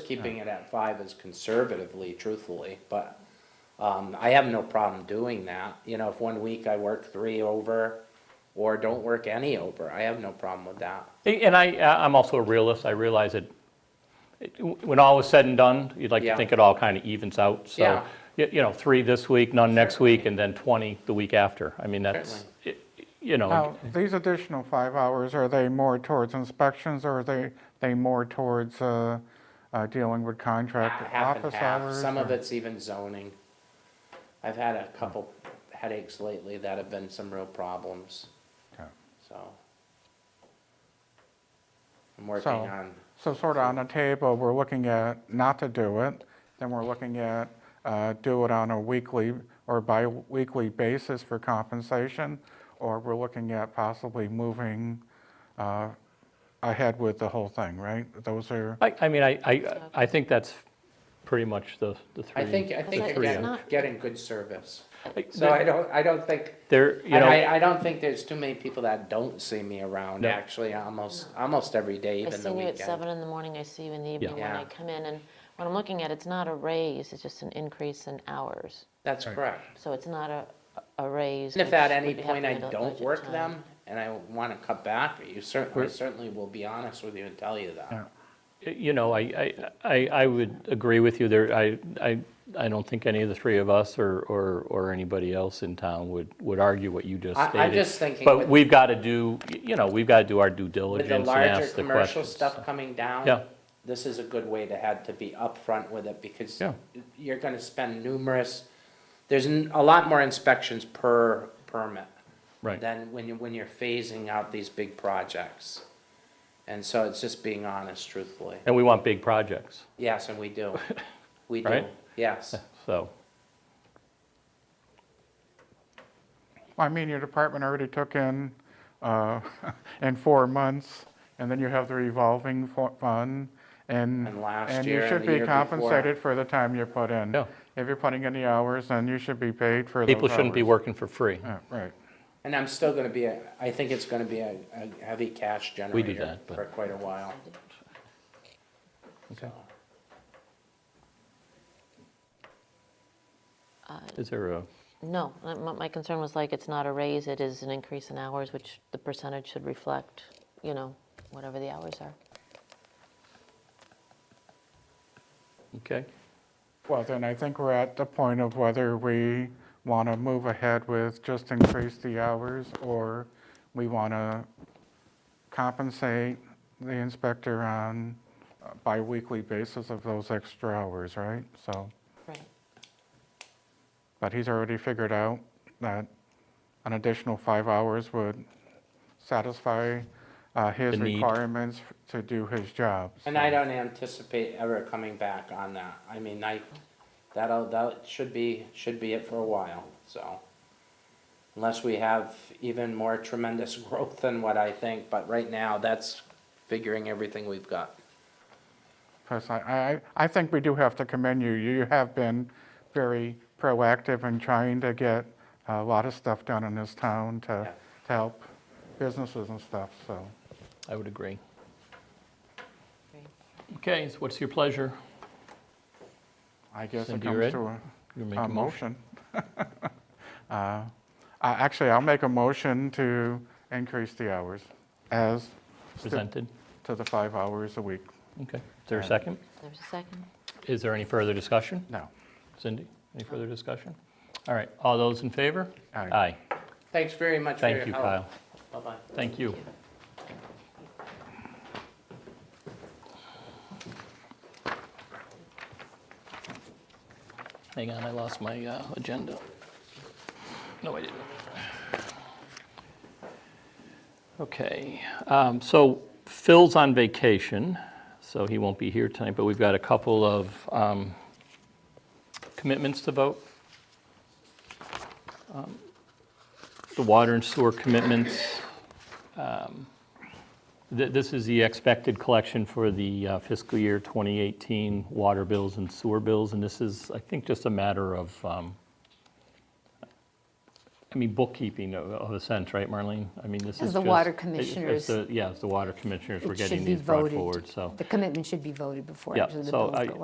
keeping it at five is conservatively, truthfully, but, um, I have no problem doing that. You know, if one week I work three over or don't work any over, I have no problem with that. And I, uh, I'm also a realist. I realize that it- when all is said and done, you'd like Yeah. to think it all kind of evens out. So, Yeah. y- you know, three this week, none next week, and then 20 the week after. I mean, that's, y- you know, Now, these additional five hours, are they more towards inspections or are they, they more towards uh, uh, dealing with Ha- contract Half and office half, hours? some of or- it's even zoning. I've had a couple headaches lately that have been some real problems, Okay. so. I'm working So- on, So sort of on the table, we're looking at not to do it, then we're looking at uh, do it on a weekly or bi-weekly basis for compensation, or we're looking at possibly moving uh, ahead with the whole thing, right? Those are, I, I mean, I, I, I think that's pretty much the, the three. I think, I the think three again, of- getting, getting good service. Like, So I don't, I don't think, There, you and know, I, I don't think there's too many people that don't see me around, No. actually, almost, almost every day, I even see the you at weekend. seven in the morning, I see you in the evening when Yeah. I come in, and what I'm looking at, it's not a raise, it's just an increase in hours. That's correct. So it's not a, a raise. And if which at any would be point I happening at don't budget work time. them, and I wanna cut back, you certainly, I certainly will be honest with you and tell you that. you know, I, I, I, I would agree with you there. I, I, I don't think any of the three of us or, or, or anybody else in town would, would argue what you just I- I'm stated. just thinking with- But we've got to do, you know, we've got to do our due With the diligence and larger ask the commercial questions. stuff coming down. Yeah. This is a good way to have, to be upfront with it, because Yeah. you're gonna spend numerous, there's n- a lot more inspections per permit. Right. than when you, when you're phasing out these big projects. And so it's just being honest, truthfully. And we want big projects, Yes, and we do. We do, Right? yes. so. I mean, your department already took in, uh, in four months, and then you have the revolving fo- fund, and. And last year and you the should be year before. compensated for the time you put in. Yeah. If you're putting in the hours, then you should be paid for those hours. People shouldn't be working for free. Yeah, Right. And I'm still gonna be, a- I think it's gonna be a, a heavy cash We do generator that, but- for quite a while. Okay. So, Is there a, No, my- my my concern was like, it's not a raise, it is an increase in hours, which the percentage should reflect, you know, whatever the hours are. okay, Well, then I think we're at the point of whether we want to move ahead with just increase the hours, or we want to compensate the inspector on a biweekly basis of those extra hours, right? So, Right. but he's already figured out that an additional five hours would satisfy uh, his The need. requirements to do his job. And I don't anticipate ever coming back on that. I mean, I, that'll, that should be, should be it for a while, so. Unless we have even more tremendous growth than what I think, but right now, that's figuring everything we've got. Because I, I, I think we do have to commend you. You have been very proactive in trying to get a lot of stuff done in this town to, to help businesses and stuff, so. I would agree. Agree. Okay, so what's your pleasure? I guess it Cindy, you comes ready? to a, You make a a motion. motion. Uh, I- Actually, I'll make a motion to increase the hours as stu- Presented? to the five hours a week. Okay. Is there a second? There's a second? Is there any further discussion? No. Cindy, any further discussion? All right, all those in favor? Aye. Aye. Thanks very much for your Thank help. you, Kyle. Bye-bye. Thank you. Hang on, I lost my uh, agenda. No, I didn't. Okay, um, so Phil's on vacation, so he won't be here tonight, but we've got a couple of um, commitments to vote. Um, The water and sewer commitments. um, Th- This is the expected collection for the uh, fiscal year 2018 water bills and sewer bills, and this is, I think, just a matter of um, I mean, bookkeeping of- of a sense, right, Marlene? I mean, this is As just. the water it- it's commissioners, the- Yeah, as the water commissioners, we're It should getting be these brought voted. forward, so. The commitment should be voted before Yeah, actually the so bills I- go